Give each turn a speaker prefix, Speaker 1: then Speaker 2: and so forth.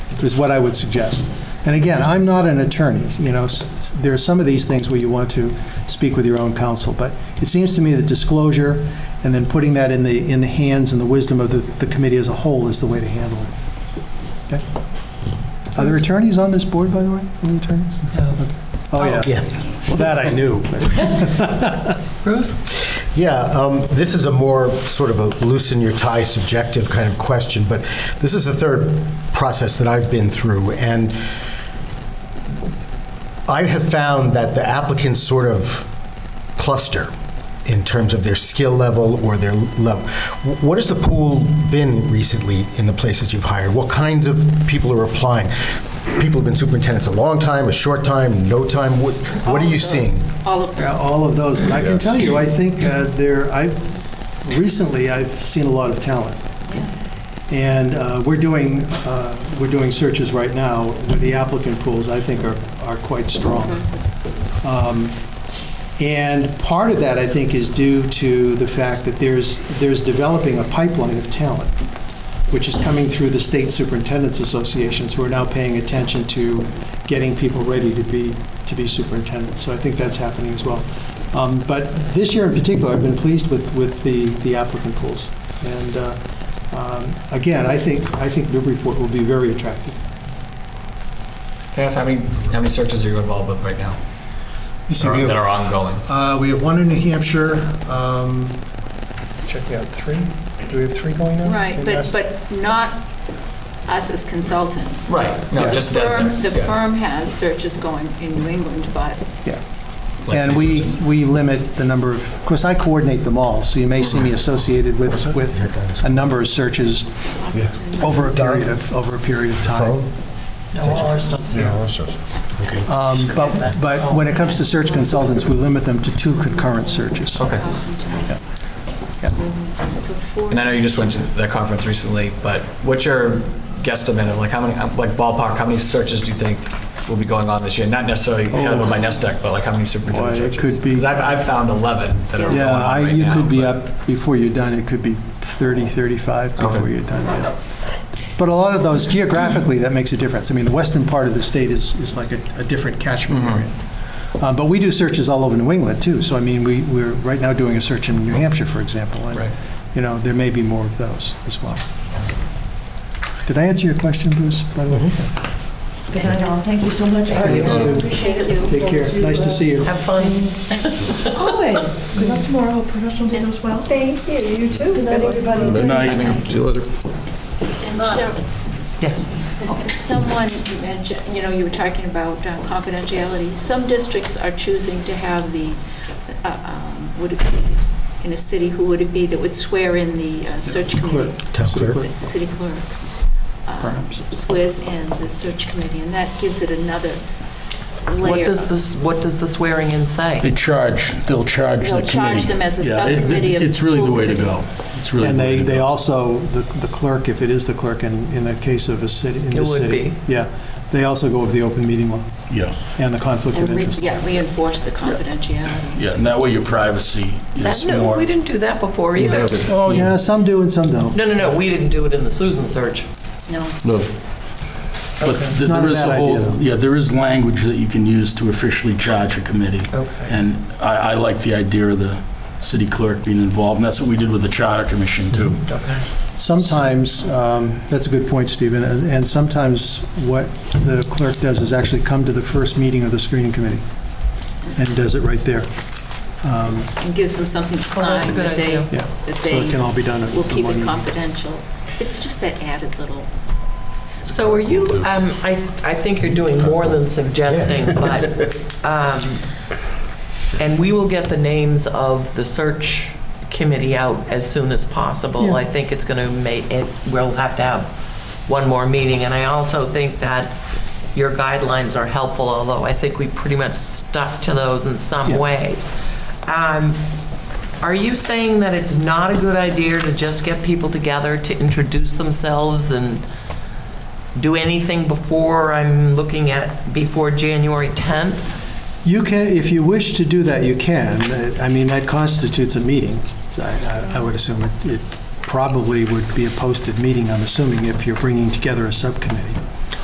Speaker 1: is what I would suggest. And again, I'm not an attorney, you know, s- s- there are some of these things where you want to speak with your own counsel, but it seems to me that disclosure and then putting that in the, in the hands and the wisdom of the, the committee as a whole is the way to handle it. Okay? Are there attorneys on this board, by the way? Any attorneys? Okay. Oh, yeah. Well, that I knew.
Speaker 2: Bruce?
Speaker 3: Yeah, um, this is a more sort of a loosen your tie subjective kind of question, but this is the third process that I've been through, and I have found that the applicants sort of cluster in terms of their skill level or their level. Wh- What has the pool been recently in the places you've hired? What kinds of people are applying? People have been superintendents a long time, a short time, no time. What, what are you seeing?
Speaker 2: All of
Speaker 1: Yeah,
Speaker 2: those.
Speaker 1: all of those, but I can tell you, I think uh, there, I, recently, I've seen a lot of talent. And uh, we're doing, uh, we're doing searches right now where the applicant pools, I think, are, are quite strong. Um, And part of that, I think, is due to the fact that there's, there's developing a pipeline of talent, which is coming through the state superintendent's associations, who are now paying attention to getting people ready to be, to be superintendents. So I think that's happening as well. Um, But this year in particular, I've been pleased with, with the the applicant pools. And uh, um, again, I think, I think Newburyport will be very attractive.
Speaker 4: Can I ask how many, how many searches are you involved with right now that are, that are ongoing?
Speaker 1: Uh, We have one in New Hampshire. um, Check me out, three? Do we have three going now?
Speaker 2: Right,
Speaker 1: In
Speaker 2: but,
Speaker 1: Mass-
Speaker 2: but not us as consultants.
Speaker 4: Right, no,
Speaker 2: The
Speaker 4: just
Speaker 2: firm-
Speaker 4: Desda.
Speaker 2: The
Speaker 4: Yeah.
Speaker 2: firm has searches going in New England, but
Speaker 4: Like
Speaker 1: And
Speaker 4: three
Speaker 1: we,
Speaker 4: searches?
Speaker 1: we limit the number of, of course, I coordinate them all, so you may see me associated with, with a number of searches
Speaker 3: Yeah.
Speaker 1: over a period of, over a period of time.
Speaker 3: Phone?
Speaker 1: Um, But, but when it comes to search consultants, we limit them to two concurrent searches.
Speaker 4: Okay.
Speaker 2: So four.
Speaker 4: And I know you just went to that conference recently, but what's your guesstimate of like how many, like ballpark, how many searches do you think will be going on this year? Not necessarily handled by NESDEC, but like how many superintendent
Speaker 1: Oh. Boy, it
Speaker 4: searches?
Speaker 1: could be-
Speaker 4: 'Cause I've, I've found 11 that are going
Speaker 1: Yeah,
Speaker 4: on
Speaker 1: I-
Speaker 4: right
Speaker 1: you
Speaker 4: now.
Speaker 1: could be
Speaker 4: but-
Speaker 1: up, before you're done, it could be 30, 35 before
Speaker 4: Okay.
Speaker 1: you're done, yeah. But a lot of those, geographically, that makes a difference. I mean, the western part of the state is, is like a, a different catchment area.
Speaker 4: Mm-hmm.
Speaker 1: Uh, But we do searches all over New England, too. So I mean, we, we're right now doing a search in New Hampshire, for example. and,
Speaker 4: Right.
Speaker 1: You know, there may be more of those as well. Did I answer your question, Bruce, by the way?
Speaker 4: Mm-hmm.
Speaker 5: Good night, all. Thank you so much.
Speaker 1: you.
Speaker 5: Appreciate it.
Speaker 1: Take care. Nice to see you.
Speaker 6: Have fun.
Speaker 5: Always. Good luck tomorrow. Hope Professional day goes well. Thank you. You too. Good night, everybody.
Speaker 7: Good night. See you later.
Speaker 2: And Cheryl,
Speaker 6: Yes.
Speaker 2: Someone you mentioned, you know, you were talking about uh, confidentiality. Some districts are choosing to have the, uh, um, would it be, in a city, who would it be that would swear in the uh, search committee?
Speaker 3: Town clerk?
Speaker 2: The City clerk uh,
Speaker 1: Perhaps.
Speaker 2: swears in the search committee, and that gives it another layer.
Speaker 6: What does
Speaker 2: of-
Speaker 6: this, what does the swearing in
Speaker 7: They
Speaker 6: say?
Speaker 7: charge, they'll charge the
Speaker 2: They'll
Speaker 7: committee.
Speaker 2: charge them as a
Speaker 7: Yeah, it- it-
Speaker 2: subcommittee of the
Speaker 7: It's really the
Speaker 2: school
Speaker 7: way to
Speaker 2: committee.
Speaker 7: go. It's really.
Speaker 1: And
Speaker 7: the way
Speaker 1: they,
Speaker 7: to
Speaker 1: they
Speaker 7: go.
Speaker 1: also, the the clerk, if it is the clerk in, in the case of a city, in
Speaker 6: It
Speaker 1: the
Speaker 6: would
Speaker 1: city.
Speaker 6: be.
Speaker 1: Yeah, they also go with the open meeting law
Speaker 7: Yeah,
Speaker 1: and the conflict
Speaker 2: And
Speaker 1: of
Speaker 2: re-
Speaker 1: interest.
Speaker 2: yeah, reinforce the confidentiality.
Speaker 7: yeah, and that way your privacy
Speaker 6: That-
Speaker 7: is
Speaker 6: No, we
Speaker 7: more.
Speaker 6: didn't do that before either.
Speaker 7: Oh,
Speaker 1: Yeah, some do and some don't.
Speaker 6: No, no, no, we didn't do it in the Susan search.
Speaker 2: No,
Speaker 7: No. But th-
Speaker 1: not a
Speaker 7: there is
Speaker 1: bad
Speaker 7: a
Speaker 1: idea, though.
Speaker 7: whole, yeah, there is language that you can use to officially charge a committee.
Speaker 6: Okay.
Speaker 7: And I, I like the idea of the city clerk being involved, and that's what we did with the charter commission too.
Speaker 6: Um,
Speaker 1: Sometimes, um, that's a good point, Stephen, and and sometimes what the clerk does is actually come to the first meeting of the screening committee and does it right there. Um,
Speaker 2: and gives them something to
Speaker 6: Oh, that's a
Speaker 2: sign
Speaker 6: good
Speaker 2: that they,
Speaker 6: idea.
Speaker 1: Yeah,
Speaker 2: that
Speaker 1: so it
Speaker 2: they
Speaker 1: can all be done at
Speaker 2: will
Speaker 1: the
Speaker 2: keep
Speaker 1: one
Speaker 2: it
Speaker 1: meeting.
Speaker 2: confidential. It's just that added little.
Speaker 6: So are you, um, I, I think you're doing more than suggesting, but, um, and we will get the names of the search committee out as soon as possible.
Speaker 1: Yeah.
Speaker 6: I think it's gonna make, it, we'll have to have one more meeting, and I also think that your guidelines are helpful, although I think we pretty much stuck to those in
Speaker 1: Yeah.
Speaker 6: some ways. Um, Are you saying that it's not a good idea to just get people together to introduce themselves and do anything before I'm looking at, before January 10th?
Speaker 1: You can, if you wish to do that, you can. Uh, I mean, that constitutes a meeting. So I I- I would assume it- it probably would be a posted meeting, I'm assuming, if you're bringing together a subcommittee.